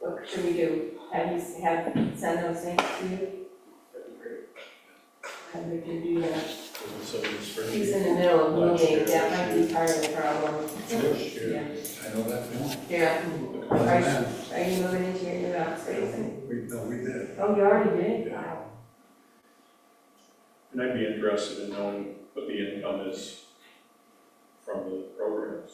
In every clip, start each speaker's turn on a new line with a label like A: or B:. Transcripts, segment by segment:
A: what should we do? Have you, have, send those things to you? That'd be great. And we can do that.
B: So it's for
A: He's
B: me.
A: in the middle of
B: Last
A: moving,
B: year,
A: that might be part of the problem.
B: This year,
C: I know that feeling.
A: Yeah,
C: Look at
A: Right.
C: that.
A: are you moving into your new office?
C: We, no, we did.
A: Oh, you already did?
C: Yeah.
A: Wow.
B: And I'd be interested in knowing what the income is from the programs.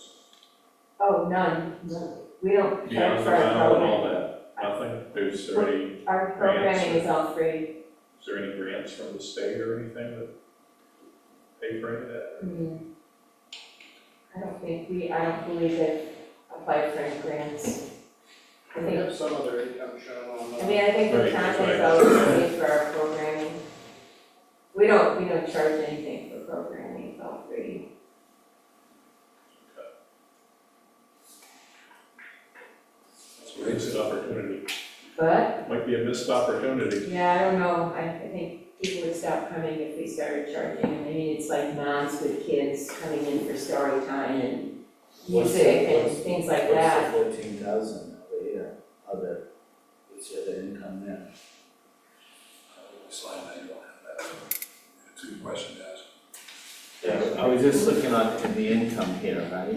A: Oh, none, none. We don't charge
B: Beyond the
A: for our
B: rental and
A: program.
B: all that, nothing, there's already,
A: Our programming is all free.
B: is there any grants from the state or anything that pay for any of that?
A: Hmm. I don't think we, I don't believe they applied for any grants. I
D: We
A: think,
D: have some other income shown on
A: I
D: that.
A: mean, I think the
B: Right, that's
A: contact's
B: right.
A: always paid for our programming. We don't, we don't charge anything for programming, it's all free.
B: It's a missed opportunity,
A: But,
B: might be a missed opportunity.
A: yeah, I don't know, I, I think people would stop coming if we started charging. I mean, it's like moms with kids coming in for story time and
E: What's the-
A: music and
E: what's-
A: things like that.
E: What's the fourteen thousand over here, other, what's the other income there?
C: Slide, I don't have that. It's a good question to ask.
F: Yeah, I was just looking at the income here, right?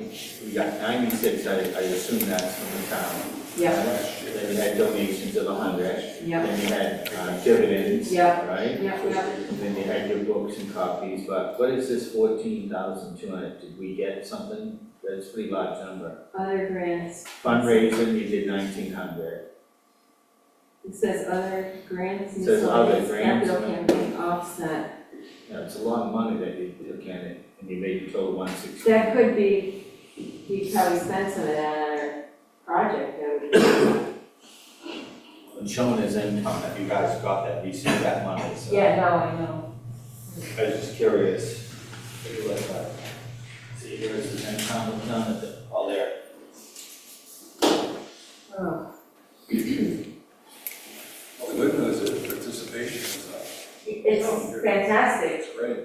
F: We got ninety-six, I, I assume that's from the town.
A: Yep,
C: Last year.
F: Then we had donations of a hundred,
A: yep,
F: then you had uh, dividends,
A: Yeah.
F: right?
A: yep, yep.
F: Then you had your books and copies, but what is this fourteen thousand two hundred? Did we get something? That's a pretty large number.
A: Other grants.
F: Fundraising, we did nineteen hundred.
A: It says other grants,
F: Says other
A: miscellaneous
F: grants,
A: capital
F: yeah.
A: campaign offset.
F: You know, it's a lot of money that you took in it, and you made your total one sixty.
A: That could be, he probably spent some of that on our project, that would
F: And shown as income, if you guys got that, you see that money, so.
A: be. Yeah, no, I know.
F: I was just curious. Take a look at it. See, here's the ten pound done at the, all there.
A: Oh,
C: Well, Oh, the good news is participation is up.
A: It's fantastic,
C: It's great.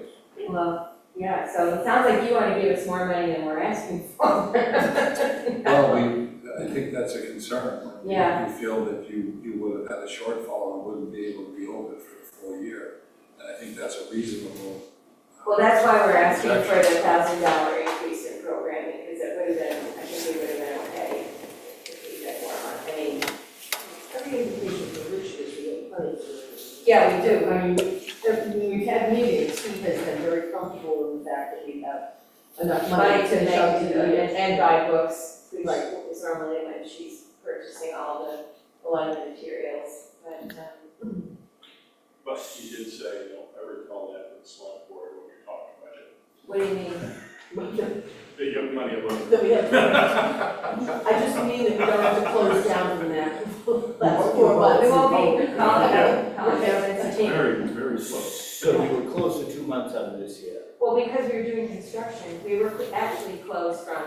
A: well, yeah, so it sounds like you wanna give us more money than we're asking for.
C: Well, we, I think that's a concern.
A: Yeah.
C: You feel that you, you would have had a shortfall and wouldn't be able to reopen for the full year. And I think that's a reasonable. uh,
A: Well, that's why we're asking for the thousand dollar increase in programming, because it would have been, I think we would have been okay if we had more on, I mean,
D: Every indication for which is we get money for it.
A: yeah, we do,
D: I mean, if we've had meetings, Steve has been very comfortable in the fact that we have enough money to make
A: and,
D: the.
A: and buy books, which
D: Right.
A: is normally when she's purchasing all the, a lot of the materials, but, um,
B: But you did say, you know, I recall that with the select board when we
A: what do you
B: were talking about it,
A: mean?
B: the young money alone.
D: That we have, I just mean that we don't have to close down from that last four months.
A: We won't be calling
B: Yeah.
A: it, calling it a team.
B: Very, very slow.
F: So we were close to two months out of this year.
A: Well, because we were doing construction, we were actually closed from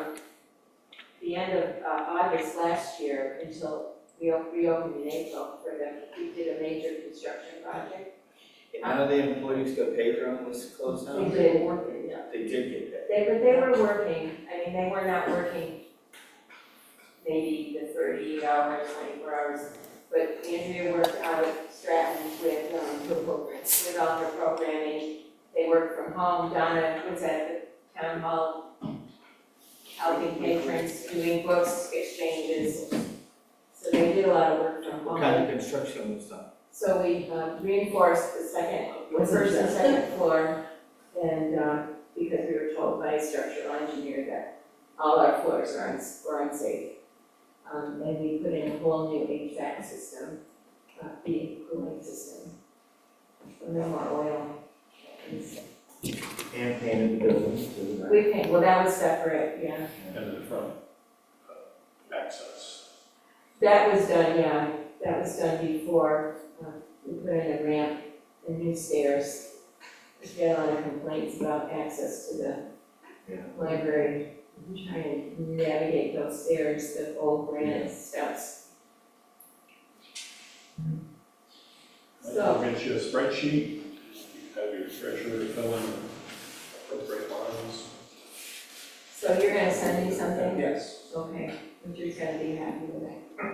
A: the end of uh, August last year until we o- reopened in April for the, we did a major construction project.
F: None of the employees got paid during this close
A: We
F: down?
A: did,
F: They did get paid.
A: They, but they were working, I mean, they were not working maybe the thirty hours, twenty-four hours, but Andrea worked out of Stratton with, um, with all her programming. They worked from home, Donna was at the town hall helping patrons, doing books exchanges. So they did a lot of work from
F: What
A: home.
F: kind of construction was done?
A: So we uh, reinforced the second, the
D: Wasn't
A: first and
D: that-
A: second floor, and, um, because we were told by a structural engineer that all our floors are uns, were unsafe. Um, and we put in a whole new HVAC system, uh, heating, cooling system. So No more oil.
F: And painted the buildings to the
A: We paint, well, that was separate, yeah.
B: And then from uh, access.
A: That was done, yeah, that was done before, uh, we put in a ramp and new stairs. There's been a lot of complaints about access to
F: Yeah.
A: the library, I'm trying to navigate those stairs, the old granite steps.
B: I'll
A: So,
B: Get you a spreadsheet, have your treasurer fill in appropriate lines.
A: so you're gonna send me something?
D: Yes.
A: Okay, Richard's gonna be happy with that.